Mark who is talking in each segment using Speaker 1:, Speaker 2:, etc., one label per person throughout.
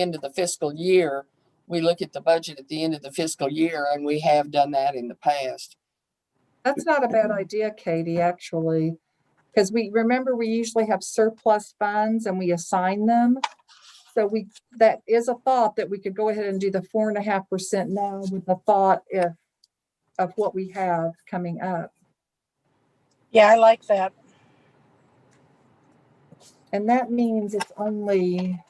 Speaker 1: end of the fiscal year, we look at the budget at the end of the fiscal year, and we have done that in the past.
Speaker 2: That's not a bad idea, Katie, actually, because we, remember, we usually have surplus funds and we assign them. So we, that is a thought that we could go ahead and do the four and a half percent now with the thought if, of what we have coming up.
Speaker 3: Yeah, I like that.
Speaker 2: And that means it's only,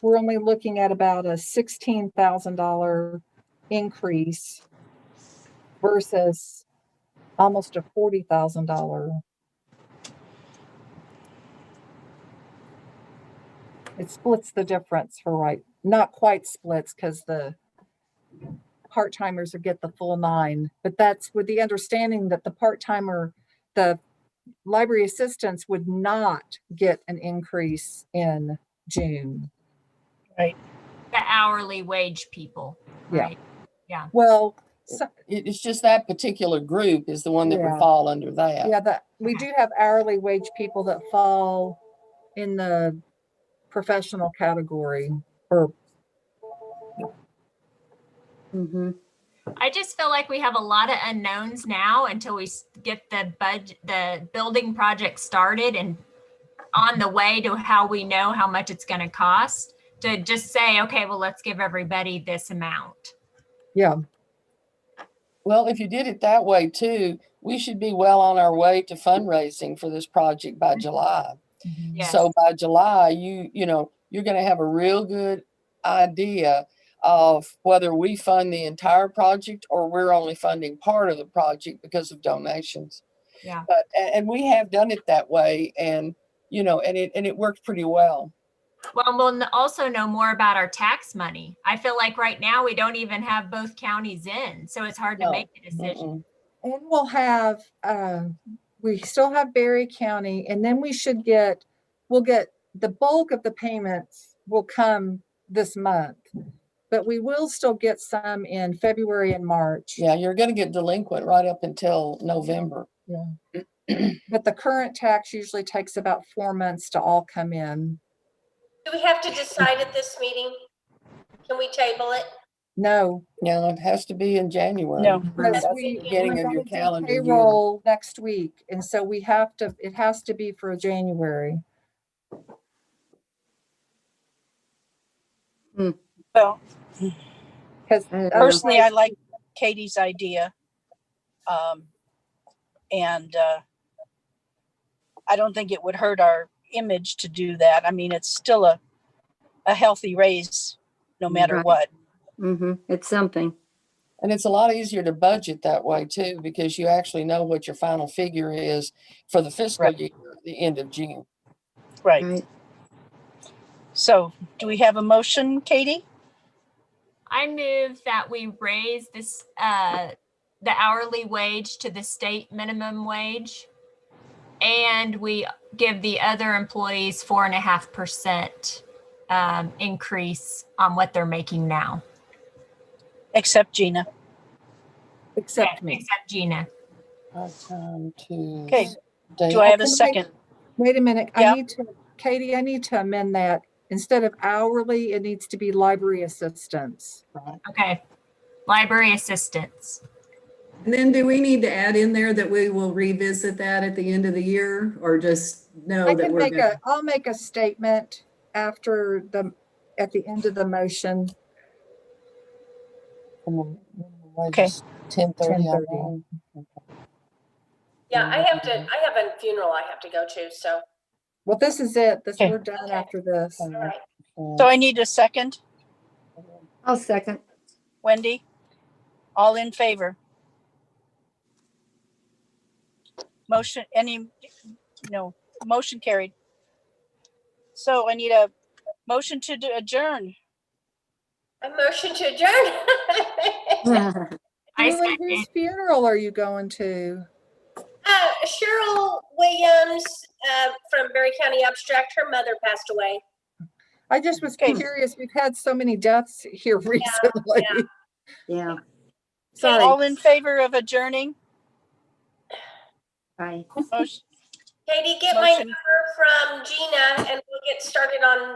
Speaker 2: we're only looking at about a sixteen thousand dollar increase versus almost a forty thousand dollar. It splits the difference for right, not quite splits because the part timers would get the full nine, but that's with the understanding that the part timer, the library assistants would not get an increase in June.
Speaker 4: the hourly wage people,
Speaker 2: Yeah.
Speaker 4: right?
Speaker 2: Well, so,
Speaker 1: It- it's just that particular group is the one that would
Speaker 2: Yeah.
Speaker 1: fall under that.
Speaker 2: yeah, that, we do have hourly wage people that fall in the professional category or,
Speaker 4: I just feel like we have a lot of unknowns now until we s- get the bud, the building project started and on the way to how we know how much it's gonna cost, to just say, okay, well, let's give everybody this amount.
Speaker 1: Well, if you did it that way too, we should be well on our way to fundraising for this project
Speaker 2: Mm-hmm.
Speaker 1: by July.
Speaker 4: Yes,
Speaker 1: So by July, you, you know, you're gonna have a real good idea of whether we fund the entire project or we're only funding part of the project because of donations.
Speaker 4: Yeah.
Speaker 1: But, a- and, we have done it that way and, you know, and it, and it worked pretty well.
Speaker 4: well, we'll n- also know more about our tax money. I feel like right now we don't even have both counties in, so it's hard to
Speaker 1: No.
Speaker 4: make a
Speaker 1: Mm-mm.
Speaker 4: decision.
Speaker 2: and we'll have, uh, we still have Berry County and then we should get, we'll get, the bulk of the payments will come this month. But we will still get some in February and March.
Speaker 1: Yeah, you're gonna get delinquent right up until November.
Speaker 2: But the current tax usually takes about four months to all come in.
Speaker 5: Do we have to decide at this meeting? Can we table it?
Speaker 2: No.
Speaker 1: Now, it has to be in January.
Speaker 3: No.
Speaker 2: because
Speaker 1: That's
Speaker 2: we-
Speaker 1: beginning
Speaker 2: we're
Speaker 1: of your
Speaker 2: gonna do
Speaker 1: calendar year.
Speaker 2: Payroll next week, and so we have to, it has to be for January.
Speaker 3: Well,
Speaker 2: Because
Speaker 6: Oh.
Speaker 3: personally, I like Katie's idea. Um, and, uh, I don't think it would hurt our image to do that. I mean, it's still a, a healthy raise, no matter
Speaker 6: Right.
Speaker 3: what.
Speaker 6: Mm-hmm. It's something.
Speaker 1: And it's a lot easier to budget that way too, because you actually know what your final figure is for the fiscal
Speaker 3: Right.
Speaker 1: year, at the end of June.
Speaker 3: Right.
Speaker 6: Right.
Speaker 3: So do we have a motion, Katie?
Speaker 4: I move that we raise this, uh, the hourly wage to the state minimum wage. And we give the other employees four and a half percent, um, increase on what they're making now.
Speaker 3: Except Gina.
Speaker 2: Except me.
Speaker 4: Except Gina.
Speaker 1: Our time to.
Speaker 3: Okay.
Speaker 1: stay-
Speaker 3: Do I have a
Speaker 2: can I
Speaker 3: second?
Speaker 2: Wait a minute, I
Speaker 3: Yeah.
Speaker 2: need to, Katie, I need to amend that. Instead of hourly, it needs to be library assistants.
Speaker 4: Okay. Library assistants.
Speaker 7: And then do we need to add in there that we will revisit that at the end of the year or just know
Speaker 2: I
Speaker 7: that
Speaker 2: can
Speaker 7: we're
Speaker 2: make
Speaker 7: good?
Speaker 2: a, I'll make a statement after the, at the end of the motion.
Speaker 1: Minimum wage
Speaker 3: Okay.
Speaker 1: is 10:30
Speaker 2: 10:30.
Speaker 1: online.
Speaker 5: Yeah, I have to, I have a funeral I have to go to, so,
Speaker 2: Well, this is it, this,
Speaker 3: Okay.
Speaker 2: we're done
Speaker 5: Okay.
Speaker 2: after this.
Speaker 5: all right.
Speaker 1: Uh,
Speaker 3: So I need a second.
Speaker 6: I'll second.
Speaker 3: Wendy? All in favor? Motion, any, no, motion carried. So I need a motion to do- adjourn.
Speaker 5: A motion to adjourn.
Speaker 2: Julie,
Speaker 4: I second.
Speaker 2: whose funeral are you going to?
Speaker 5: Uh, Cheryl Williams, uh, from Berry County Abstract, her mother passed away.
Speaker 2: I just was
Speaker 3: Okay.
Speaker 2: curious, we've had so many deaths here recently.
Speaker 6: Yeah,
Speaker 2: Sorry.
Speaker 3: All in favor of adjourning?
Speaker 6: right.
Speaker 3: Motion-
Speaker 5: Katie, get my
Speaker 3: Motion.
Speaker 5: number from Gina and we'll get started on